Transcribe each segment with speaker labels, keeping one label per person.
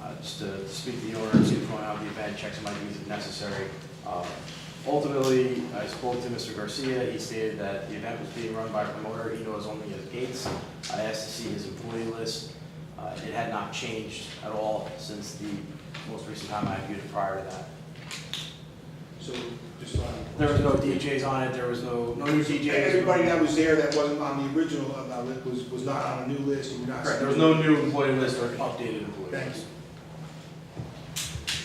Speaker 1: Uh, just to speak to the owner, see what's going on with the event, check some IDs if necessary. Um, Ultimately, I spoke to Mr. Garcia, he stated that the event was being run by a promoter, he knows only his gates. I asked to see his employee list, Uh, it had not changed at all since the most recent time I viewed it prior to that.
Speaker 2: So, just so I.
Speaker 1: There was no DJs on it, there was no, no new DJs.
Speaker 2: Everybody that was there that wasn't on the original of that list was, was not on a new list, and we're not.
Speaker 1: Correct, there was no new employee list or updated employee
Speaker 2: Thank
Speaker 1: list.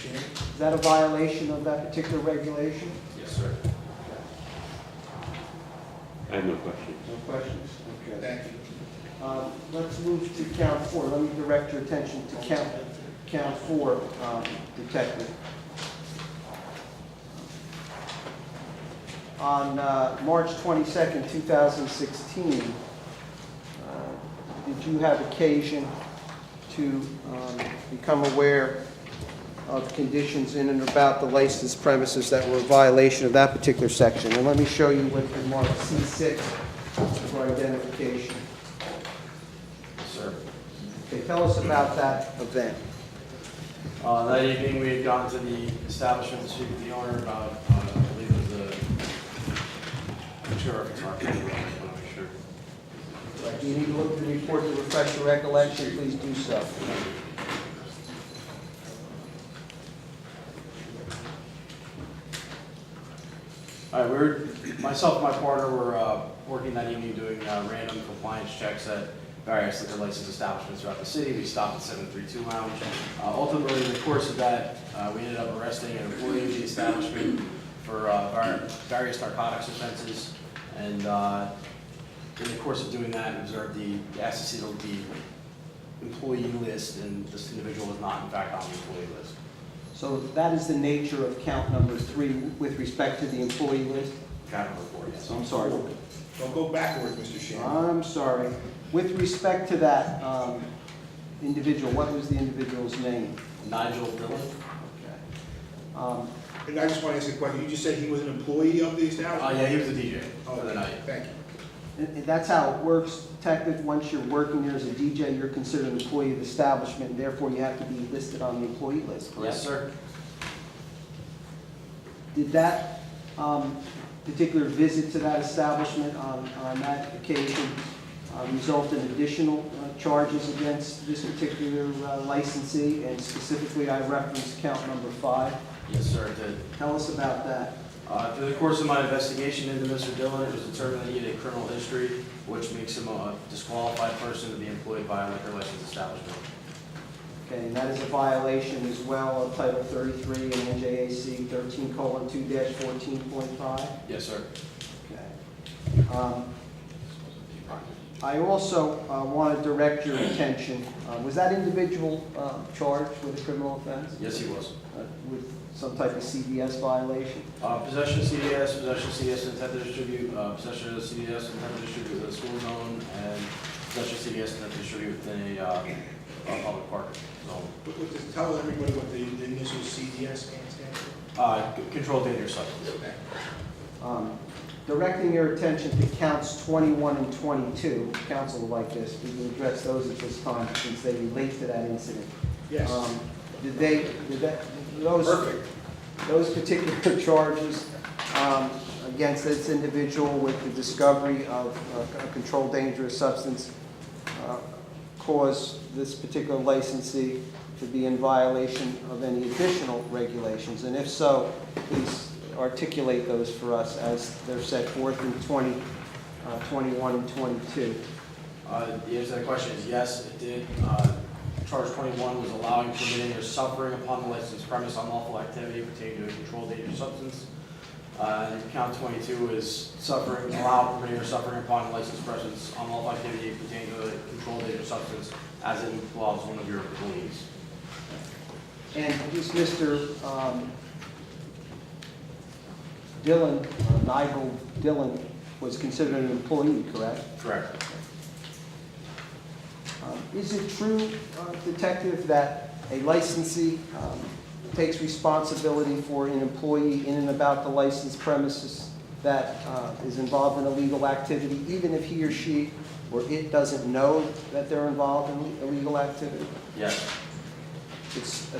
Speaker 2: you. Shannon?
Speaker 3: Is that a violation of that particular regulation?
Speaker 1: Yes, sir.
Speaker 4: I have no question.
Speaker 3: No questions? Okay.
Speaker 2: Thank you.
Speaker 3: Um, Let's move to count four. Let me direct your attention to count, count four, um, Detective. On uh, March 22nd, 2016, uh, did you have occasion to um, become aware of conditions in and about the licensed premises that were a violation of that particular section? And let me show you what's been marked C6 for identification.
Speaker 1: Yes, sir.
Speaker 3: Okay, tell us about that event.
Speaker 1: Uh, That evening, we had gone to the establishment to speak with the owner about, uh, I believe it was the, I'm sure it's Mark, I want to make sure.
Speaker 3: If you need to look at the report to refresh your recollection, please do so.
Speaker 1: All right, we were, myself and my partner were uh, working that evening doing uh, random compliance checks at various liquor license establishments throughout the city. We stopped at 732 Lounge. Uh, Ultimately, in the course of that, uh, we ended up arresting an employee of the establishment for uh, var- various narcotics offenses. And uh, in the course of doing that, we observed the, asked to see the- the employee list, and this individual was not in fact on the employee list.
Speaker 3: So that is the nature of count number three with respect to the employee list?
Speaker 1: Kind of report, yes.
Speaker 3: I'm sorry.
Speaker 2: Don't go backwards, Mr. Shannon.
Speaker 3: I'm sorry. With respect to that um, individual, what was the individual's name?
Speaker 1: Nigel Dillon?
Speaker 3: Okay. Um,
Speaker 2: And I just want to ask a question, you just said he was an employee of the
Speaker 1: Oh,
Speaker 2: establishment?
Speaker 1: yeah, he was a DJ for the
Speaker 2: Okay,
Speaker 1: night.
Speaker 2: Thank you.
Speaker 3: and- and That's how it works, detective. Once you're working here as a DJ, you're considered an employee of the establishment, therefore you have to be listed on the employee list, correct?
Speaker 1: Yes, sir.
Speaker 3: Did that um, particular visit to that establishment on on that occasion uh, result in additional uh, charges against this particular uh, licensee? And specifically, I referenced count number five.
Speaker 1: Yes, sir, it did.
Speaker 3: Tell us about that.
Speaker 1: Uh, Through the course of my investigation into Mr. Dillon, it was determined that he had a criminal history, which makes him a disqualified person to be employed by a liquor license establishment.
Speaker 3: Okay, and that is a violation as well of Title 33 and NJAC 13:2-14.5.
Speaker 1: Yes, sir.
Speaker 3: Okay. Um, I also want to direct your attention, uh, was that individual uh, charged with a criminal offense?
Speaker 1: Yes, he was.
Speaker 3: Uh, With some type of CDS violation?
Speaker 1: Uh, Possession of CDS, possession of CDS intent to distribute, uh, possession of CDS intent to distribute within a school zone, and possession of CDS intent to distribute within a uh, a public park zone.
Speaker 2: What- what does- Tell everybody what the the initial CDS stands for.
Speaker 1: Uh, c- Controlled dangerous substance.
Speaker 2: Thank you.
Speaker 3: Um, Directing your attention to counts 21 and 22, counsel will like this, we can address those at this time since they relate to that incident.
Speaker 2: Yes,
Speaker 3: Um, Did they, did that, those...
Speaker 2: perfect.
Speaker 3: those particular charges um, against this individual with the discovery of uh, a controlled dangerous substance uh, caused this particular licensee to be in violation of any additional regulations? And if so, please articulate those for us as they're set forth in 20, uh, 21, and 22.
Speaker 1: Uh, The answer to that question is yes, it did. Uh, Charge 21 was allowing, permitting, or suffering upon the licensed premise unlawful activity pertaining to a controlled dangerous substance. Uh, and Count 22 is suffering, allowing, permitting, or suffering upon the licensed presence unlawful activity pertaining to a controlled dangerous substance as it involves one of your employees.
Speaker 3: And is Mr. um, Dillon, uh, Nigel Dillon, was considered an employee, correct?
Speaker 1: Correct.
Speaker 3: Um, Is it true, uh, Detective, that a licensee um, takes responsibility for an employee in and about the licensed premises that uh, is involved in illegal activity, even if he or she or it doesn't know that they're involved in illegal activity?
Speaker 1: Yes.
Speaker 3: It's a